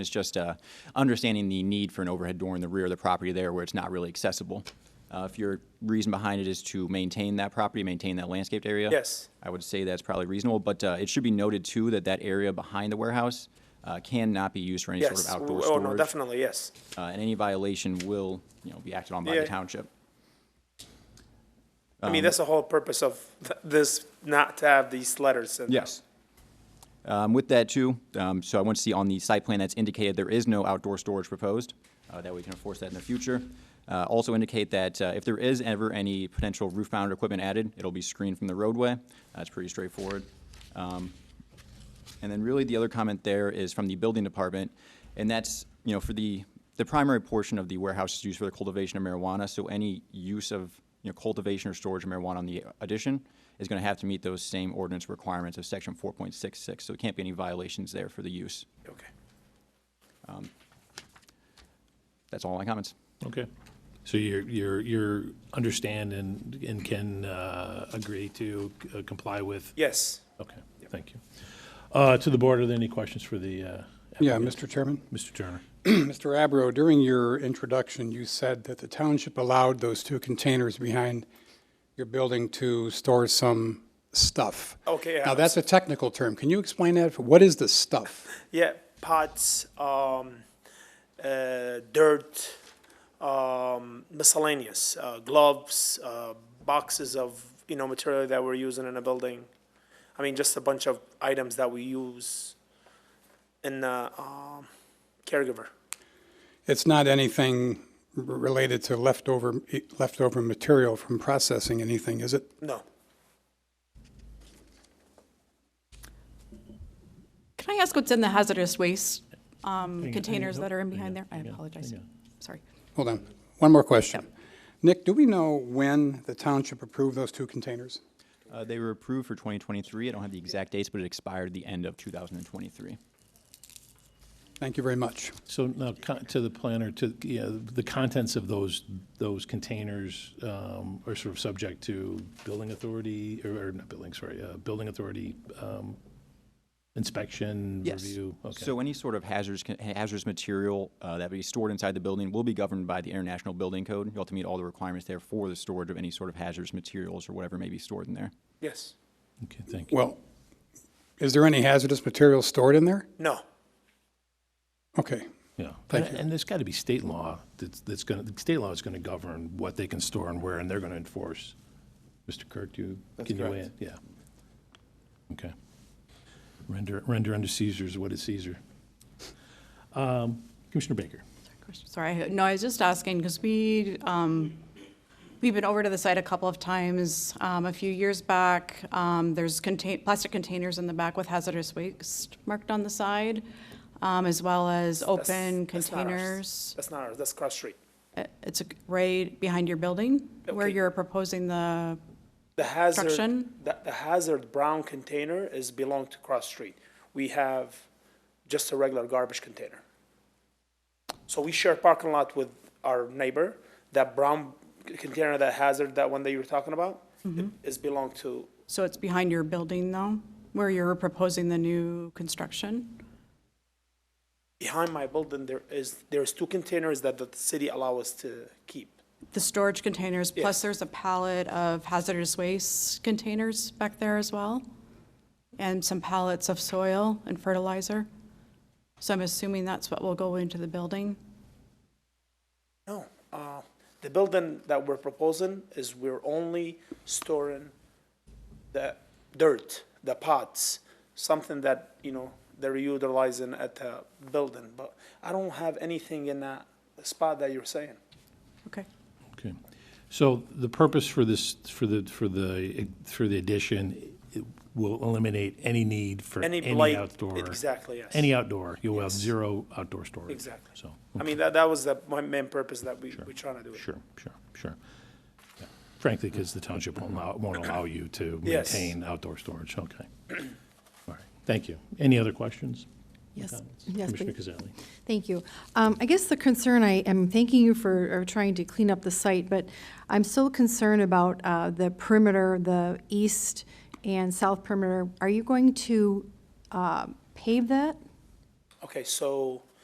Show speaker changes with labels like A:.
A: It's just uh, understanding the need for an overhead door in the rear of the property there where it's not really accessible. Uh, If your reason behind it is to maintain that property, maintain that landscaped area?
B: Yes.
A: I would say that's probably reasonable, but uh, it should be noted too that that area behind the warehouse uh, cannot be used for any sort of
B: Yes.
A: outdoor
B: Oh, no,
A: storage.
B: definitely, yes.
A: Uh, And any violation will, you know, be acted on by
B: Yeah.
A: the township.
B: I
A: Um,
B: mean, that's the whole purpose of th- this, not to have these letters. in there.
A: Yes. Um, With that too, um, so I want to see on the site plan that's indicated there is no outdoor storage proposed, uh, that we can enforce that in the future. Uh, Also indicate that uh, if there is ever any potential roof-mounted equipment added, it'll be screened from the roadway. That's pretty straightforward. Um, And then really the other comment there is from the building department, and that's, you know, for the, the primary portion of the warehouse is used for the cultivation of marijuana, so any use of, you know, cultivation or storage of marijuana on the addition is gonna have to meet those same ordinance requirements of section four point six six, so it can't be any violations there for the use.
B: Okay.
A: That's all my comments.
C: Okay. So you're, you're, you're understand and, and can uh, agree to uh, comply with?
B: Yes.
C: Okay, thank you. Uh, To the board, are there any questions for the, uh,
D: Yeah, Mr. Chairman.
C: Mr. Turner?
D: Mr. Abro, during your introduction, you said that the township allowed those two containers behind your building to store some stuff.
B: Okay, yeah.
D: Now, that's a technical term. Can you explain that? What is the stuff?
B: Yeah, pots, um, uh, dirt, um, miscellaneous, uh, gloves, uh, boxes of, you know, material that we're using in a building. I mean, just a bunch of items that we use in, uh, um, caregiver.
D: It's not anything r- related to leftover, e, leftover material from processing anything, is it?
B: No.
E: Can I ask what's in the hazardous waste um,
C: on,
E: containers
C: hang
E: that are in
C: on,
E: behind
C: hang
E: there? I
C: on, hang on,
E: apologize.
C: hang on.
E: Sorry.
D: Hold on. One more question. Nick, do we know when the township approved those two containers?
A: Uh, They were approved for twenty twenty-three, I don't have the exact dates, but it expired the end of two thousand and twenty-three.
D: Thank you very much.
C: So now, con- to the planner, to, yeah, the contents of those, those containers um, are sort of subject to building authority, or, or not building, sorry, uh, building authority um, inspection, review? Okay.
A: So any sort of hazardous, con- hazardous material uh, that be stored inside the building will be governed by the International Building Code. You'll have to meet all the requirements there for the storage of any sort of hazardous materials or whatever may be stored in there.
B: Yes.
C: Okay, thank you.
D: Well, is there any hazardous material stored in there?
B: No.
D: Okay.
C: Yeah, and,
D: Thank you.
C: and there's got to be state law that's, that's going to, state law is going to govern what they can store and where, and they're going to enforce. Mr. Kirk, do you, can you weigh in? Yeah. Okay. Render, render unto Caesar is what is Caesar. Um, Commissioner Baker,
E: Question- Sorry, I- no, I was just asking, because we, um, we've been over to the site a couple of times, um, a few years back. Um, There's contain, plastic containers in the back with hazardous waste marked on the side, um, as well as
B: That's-
E: open
B: that's not ours.
E: containers.
B: That's not ours. That's cross street.
E: Uh, It's right behind your building, where
B: Okay.
E: you're proposing the,
B: The hazard,
E: Construction?
B: the, the hazard brown container is belong to Cross Street. We have just a regular garbage container. So we share parking lot with our neighbor. That brown container, that hazard, that one that you were talking about, is belong to,
E: so it's behind your building, though, where you're proposing the new construction?
B: behind my building, there is, there's two containers that the city allow us to keep.
E: The storage containers,
B: Yes.
E: plus there's a pallet of hazardous waste containers back there as well, and some pallets of soil and fertilizer. So I'm assuming that's what will go into the building.
B: No, uh, the building that we're proposing is we're only storing the dirt, the pots, something that, you know, they're utilizing at the building, but I don't have anything in that spot that you're saying.
E: Okay.
C: okay. So the purpose for this, for the, for the, for the addition, it will eliminate any need for
B: Any
C: any
B: blight,
C: outdoor.
B: exactly, yes.
C: Any outdoor, you'll have zero outdoor storage.
B: Exactly.
C: So.
B: I mean, that, that was the, my main purpose that we, we're trying to do. it.
C: Sure, sure, sure. Yeah. Frankly, because the township won't allow, won't allow you to
B: Yes.
C: maintain outdoor storage, okay. All right, thank you. Any other questions?
F: Yes,
C: Comments?
F: yes,
C: Commissioner
F: please.
C: Kazali.
F: Thank you. Um, I guess the concern, I am thanking you for uh, trying to clean up the site, but I'm still concerned about uh, the perimeter, the east and south perimeter. Are you going to uh, pave that?
B: Okay, so